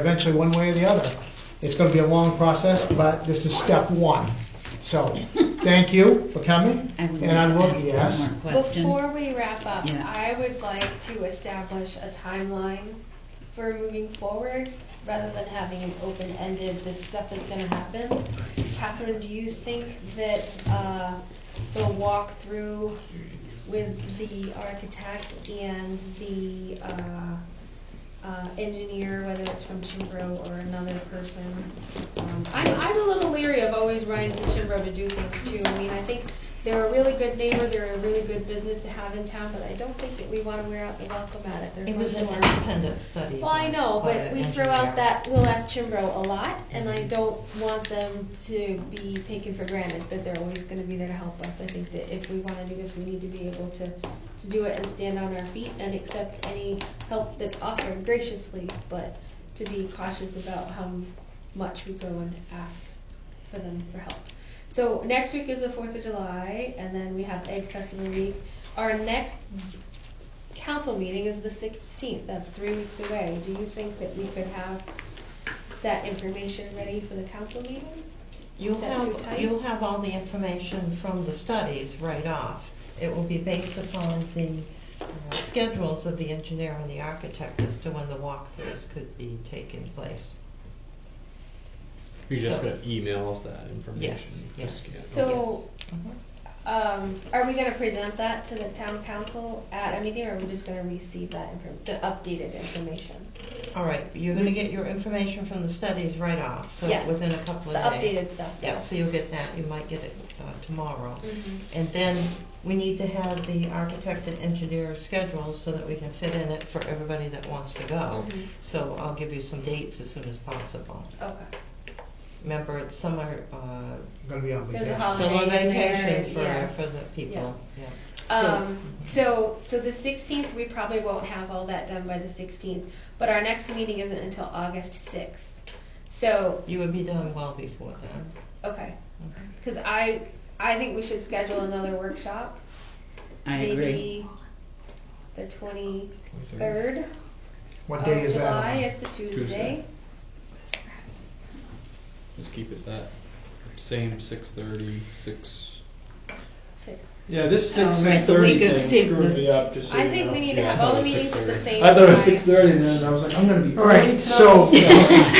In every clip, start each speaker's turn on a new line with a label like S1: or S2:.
S1: eventually one way or the other. It's gonna be a long process, but this is step one. So, thank you for coming,
S2: I would
S1: and I
S2: like
S1: will,
S2: to
S1: yes.
S2: ask one more question.
S3: Before we wrap up,
S2: Yeah.
S3: I would like to establish a timeline for moving forward, rather than having an open-ended, this stuff is gonna happen. Catherine, do you think that, uh, the walkthrough with the architect and the, uh, uh, engineer, whether it's from Chimbrow or another person. Um, I'm, I'm a little leery of always running to Chimbrow to do things too. I mean, I think they're a really good neighbor, they're a really good business to have in town, but I don't think that we wanna wear out the welcome at it. They're
S4: It was
S3: fun
S4: an
S3: to work with.
S4: independent study.
S3: Well, I know,
S4: by
S3: but we
S4: an
S3: throw out
S4: engineer.
S3: that, we'll ask Chimbrow a lot, and I don't want them to be taken for granted that they're always gonna be there to help us. I think that if we wanna do this, we need to be able to, to do it and stand on our feet and accept any help that's offered graciously, but to be cautious about how much we go and ask for them for help. So next week is the Fourth of July, and then we have Egg Festival Week. Our next council meeting is the sixteenth, that's three weeks away. Do you think that we could have that information ready for the council meeting?
S4: You'll
S3: Is that too
S4: have,
S3: tight?
S4: you'll have all the information from the studies right off. It will be based upon the uh, schedules of the engineer and the architect as to when the walkthroughs could be taking place.
S5: You're just
S4: So-
S5: gonna email us that information?
S4: Yes, yes.
S5: Just-
S3: So,
S4: Mhm.
S3: um, are we gonna present that to the town council at a meeting, or are we just gonna receive that inform, the updated information?
S4: All right, you're gonna get your information from the studies right off, so
S3: Yes.
S4: within a couple
S3: The
S4: of days.
S3: updated stuff?
S4: Yeah, so you'll get that, you might get it uh, tomorrow.
S3: Mhm.
S4: And then we need to have the architect and engineer schedules so that we can fit in it for everybody that wants to go.
S3: Mhm.
S4: So I'll give you some dates as soon as possible.
S3: Okay.
S4: Remember, it's summer, uh,
S1: I'm gonna be on
S3: There's a
S1: vacation.
S3: holiday.
S4: summer
S3: in there,
S4: vacation for,
S3: yes.
S4: for the people, yeah.
S3: Um, so, so the sixteenth, we probably won't have all that done by the sixteenth, but our next meeting isn't until August sixth. So,
S4: You would be done well before then.
S3: okay, cause I, I think we should schedule another workshop.
S2: I agree.
S3: Maybe The twenty-third
S1: What
S3: of
S1: day is that
S3: July,
S1: on?
S3: it's a Tuesday.
S5: Tuesday. Just keep it that, same six thirty, six.
S3: Six.
S6: Yeah, this
S2: Oh,
S6: six,
S2: right,
S6: six
S2: the
S6: thirty
S2: week of
S6: thing
S2: six-
S6: screwed me up, just so
S3: I
S6: you
S3: think
S6: know.
S3: we need to
S5: Yeah, I
S3: have
S5: thought
S3: all
S5: it
S3: the
S5: was
S3: meetings at the
S5: 6:30.
S3: same time.
S6: I thought it was six thirty and then I was like, I'm gonna be.
S1: All right, so,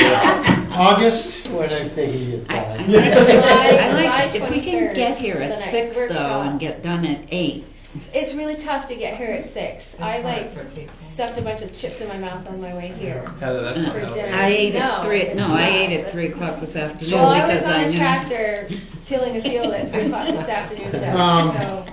S1: August,
S7: What I'm thinking is
S2: I- I
S7: fine.
S2: like- I
S3: July
S2: like, if we can
S3: 23rd,
S2: get here
S3: the
S2: at
S3: next
S2: six though
S3: workshop.
S2: and get done at eight,
S3: It's really tough to get here at six. I
S4: It's hard
S3: like
S4: for people.
S3: stuffed a bunch of chips in my mouth on my way here.
S5: Heather, that's
S2: not
S3: For
S5: helping.
S3: dinner.
S2: I ate at
S3: Uh, No,
S2: three,
S3: it's
S2: no, I
S3: not.
S2: ate at three o'clock this afternoon
S3: Well, I was
S2: because
S3: on
S2: I
S3: a
S2: knew.
S3: tractor tilling a field at three o'clock this afternoon,
S1: Um,
S3: Doug,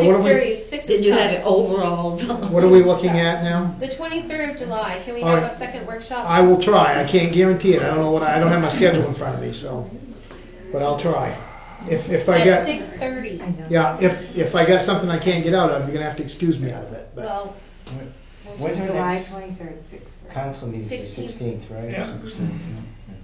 S1: so
S3: six
S1: what are we,
S3: thirty, six
S2: Did
S3: is
S2: you have
S3: tough.
S2: overalls on?
S1: what are we looking at now?
S3: The twenty-third of July, can we
S1: All
S3: have
S1: right.
S3: a second workshop?
S1: I will try. I can't guarantee it. I don't know what, I don't have my schedule in front of me, so, but I'll try. If, if I
S3: At
S1: get,
S3: six thirty,
S1: yeah, if, if I got something I can't get out of, you're gonna have to excuse me out of it, but.
S3: well,
S7: When's our
S8: July
S7: next
S8: twenty-third, six thirty.
S7: council meeting, the
S3: 16th.
S7: sixteenth, right?
S1: Yeah.
S7: 16th, yeah.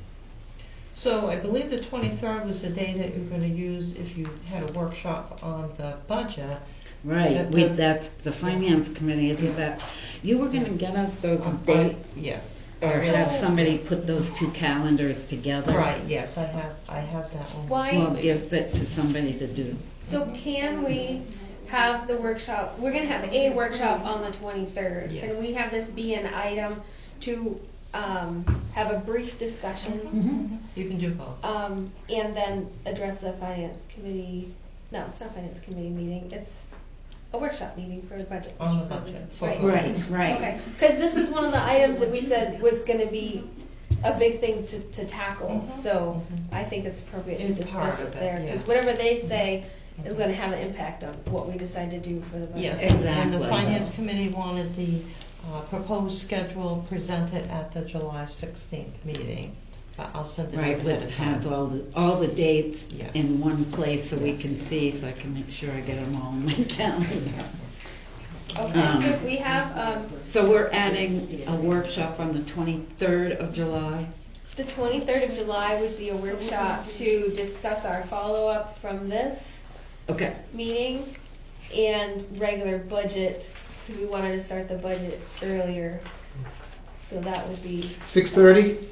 S4: So I believe the twenty-third was the day that you were gonna use if you had a workshop on the budget.
S2: Right,
S4: That
S2: we,
S4: does-
S2: that's the finance committee, isn't that, you were gonna get us those dates
S4: Yes.
S2: or have
S3: So-
S2: somebody put those two calendars together?
S4: Right, yes, I have, I have that one.
S3: Why-
S2: Well, give it to somebody to do.
S3: so can we have the workshop, we're gonna have a workshop on the twenty-third.
S4: Yes.
S3: Can we have this be an item to, um, have a brief discussion,
S4: You can do both.
S3: um, and then address the finance committee? No, it's not finance committee meeting, it's a workshop meeting for the budget.
S4: On the budget.
S3: Right.
S2: Right, right.
S3: Okay, because this is one of the items that we said was gonna be a big thing to, to tackle,
S4: Mhm.
S3: so I think it's appropriate to
S4: It's part
S3: discuss it
S4: of it,
S3: there.
S4: yes.
S3: Because
S4: Mm-hmm.
S3: whatever they say is gonna have an impact on what we decide to do for the
S4: Yes,
S3: budget.
S4: and- and the
S2: Exactly.
S4: finance committee wanted the uh, proposed schedule presented at the July 16th meeting, but I'll send it
S2: Right,
S4: out
S2: we'll
S4: at a
S2: have
S4: time.
S2: all the, all the dates
S4: Yes.
S2: in one place so we
S4: Yes.
S2: can see, so I can make sure I get them all in my calendar.
S3: Okay, so if we have, um,
S2: So we're adding a workshop on the twenty-third of July.
S3: the twenty-third of July would be a workshop to discuss our follow-up from this
S2: Okay,
S3: meeting and regular budget, because we wanted to start the budget earlier. So that would be
S1: Six thirty?